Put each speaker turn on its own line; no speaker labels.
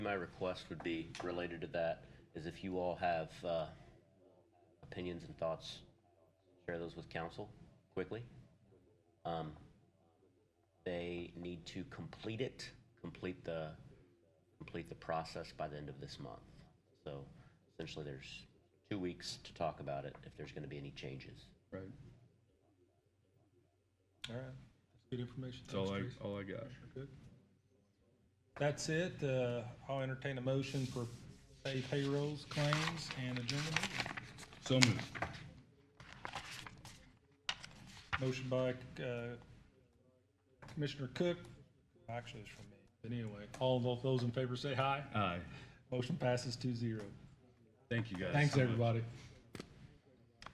My request would be related to that is if you all have uh, opinions and thoughts, share those with council quickly. Um, They need to complete it, complete the, complete the process by the end of this month. So essentially, there's two weeks to talk about it if there's going to be any changes.
Right.
All right, that's good information.
That's all I,
Thanks, Teresa.
all I got.
Good. That's it. Uh, I'll entertain a motion for pay payrolls, claims, and agenda. meeting.
So moved.
Motion by, uh, Commissioner Cook. Actually, it's from me. But anyway, all of those in favor say aye.
Aye.
Motion passes two zero.
Thank you guys.
Thanks,
so much.
everybody.